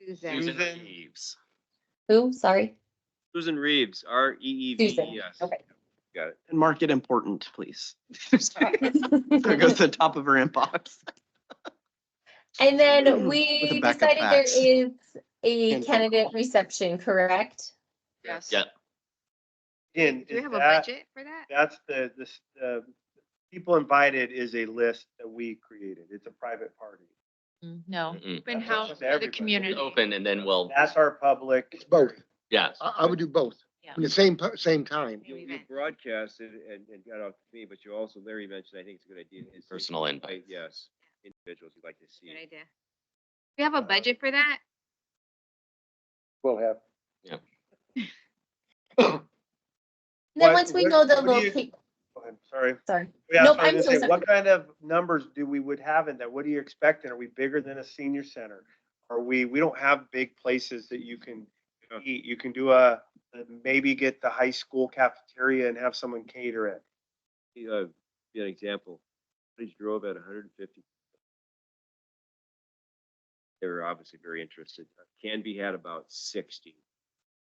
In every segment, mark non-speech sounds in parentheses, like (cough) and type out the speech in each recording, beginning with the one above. Susan. Susan Susan. Reeves. Who? Sorry. Susan Reeves, R E E V Susan, E S. okay. Got it. And mark it important, please. So It goes to the top of her inbox. And then With a we backup decided there fax. is a And phone candidate call. reception, correct? Yes. Yeah. And Do we have a that- budget for that? That's the, this, uh, people invited is a list that we created. It's a private party. Mm, No, Mm-mm. Open That's house open to for the everybody. It's community. Open and then we'll, That's our public. It's both. yes. I, I would do both. Yeah. In the same, pu- same time. Maybe You, you then. broadcast it and, and got off to me, but you also, Larry mentioned, I think it's a good idea. is to Personal invite, invites. Yes, individuals you'd like to see. Good idea. Uh, We have a budget for that? We'll have. And Then What- once we what- know the what do you- location, I'm sorry. sorry. Yeah, Nope, I was I'm gonna so say, sorry. What kind of numbers do we would have in that? What are you expecting? Are we bigger than a senior center? Are we, we don't have big places that you can Yeah. eat. You can do a, maybe get the high school cafeteria and have someone cater it. See, Uh, be an example, Cottage Grove at hundred and fifty. They were obviously very interested. Canby had about sixty.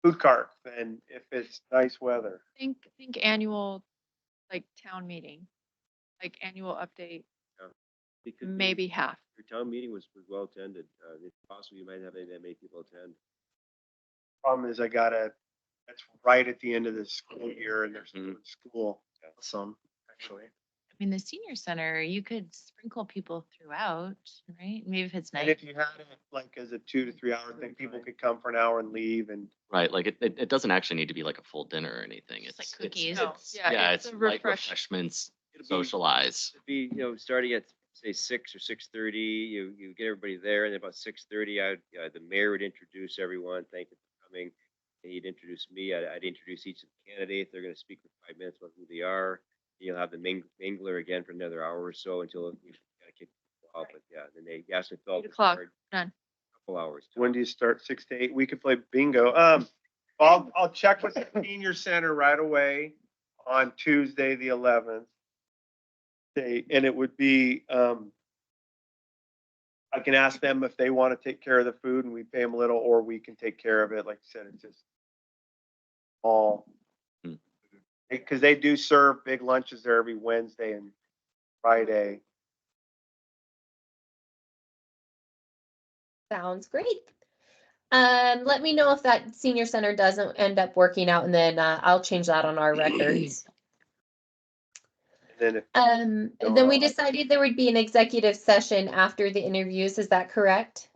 Food cart and if it's nice weather. think, think annual, like town meeting, like annual update, because the- maybe half. Your town meeting was, was well attended. Uh, if possible, you might have that many people attend. Problem is I gotta, that's right at the end of the school year and there's no Mhm. school. Some, actually. I mean, the senior center, you could sprinkle people throughout, right? Maybe if it's And nice. if you had it like as a two to three hour thing, people could come for an hour and leave and Right, like it, it, it doesn't actually need to be like a full dinner or anything. Just It's like it's- cookies. it's- No, yeah, Yeah, it's it's a light refresh- refreshments, It'd be- socialize. It'd Be, you know, starting at, say, six or six thirty, you, you get everybody there, and about six thirty, I, uh, the mayor would introduce everyone, thank you for coming. And he'd introduce me, I'd, I'd introduce each of the candidates, they're gonna speak for five minutes about who they are. You'll have the ming- mingler again for another hour or so until you gotta kick off, but yeah, then they ask if. Eight o'clock, done. Couple hours. When do you start? Six to eight? We could play bingo. Um, I'll, I'll check with the senior center right away on Tuesday, the eleventh. They, and it would be, um, I can ask them if they want to take care of the food and we pay them a little, or we can take care of it. Like I said, it's just all. Hmm. Because they do serve big lunches there every Wednesday and Friday. Sounds great. Um, let me know if that senior center doesn't end up working out and then uh, I'll change that on our records. And then if Um, Go then we on. decided there would be an executive session after the interviews. Is that correct?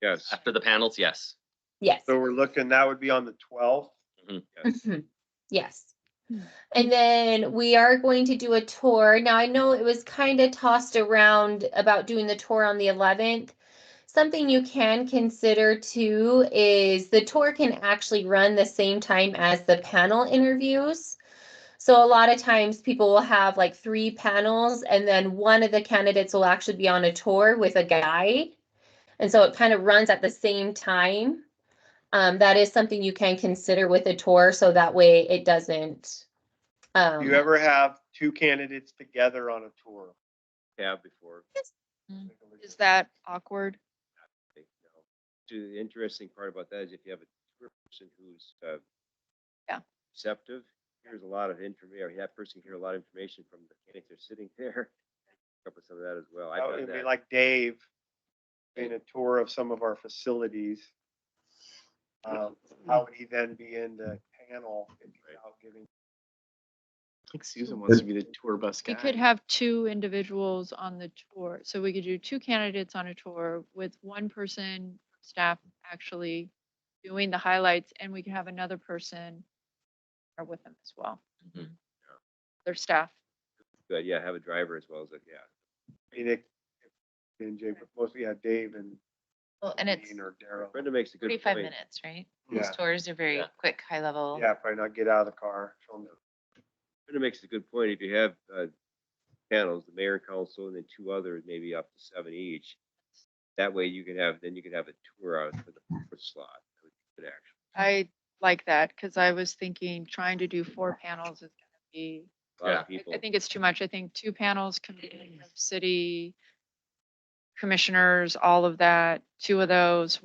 Yes, After the panels, yes. Yes. So we're looking, that would be on the twelfth. yes. Mhm. Yes. Hmm. And then we are going to do a tour. Now, I know it was kind of tossed around about doing the tour on the eleventh. Something you can consider too is the tour can actually run the same time as the panel interviews. So a lot of times people will have like three panels and then one of the candidates will actually be on a tour with a guide. And so it kind of runs at the same time. Um, that is something you can consider with a tour, so that way it doesn't. Um, You ever have two candidates together on a tour? Have before. Is that awkward? think, you know. To the interesting part about that is if you have a tour person who's, uh. Yeah. Receptive, here's a lot of information, that person can hear a lot of information from the candidates that are sitting (laughs) there. Pick Up with some of that as well. I've That done would be that. like Dave in a tour of some of our facilities. Um, How would he then be in the panel if he's out giving? think Susan wants to be the tour bus guy. We could have two individuals on the tour. So we could do two candidates on a tour with one person, staff actually doing the highlights, and we could have another person or with them as well. Mhm. Their staff. But yeah, have a driver as well as, a yeah. I mean, it- And Jay, but mostly yeah, Dave and. Well, and it's Dean Or Daryl. Brenda makes a good point. forty-five minutes, right? Yeah, Most tours are very Yeah. quick, high level. yeah, probably not get out of the car. show 'em the- Brenda makes a good point. If you have, uh, panels, the mayor and council and then two others, maybe up to seven each. That way you can have, then you can have a tour out for the for slot. That would be Good action. I like that because I was thinking trying to do four panels is gonna be, A lot Yeah. of people. I- I think it's too much. I think two panels can be city commissioners, all of that, two of those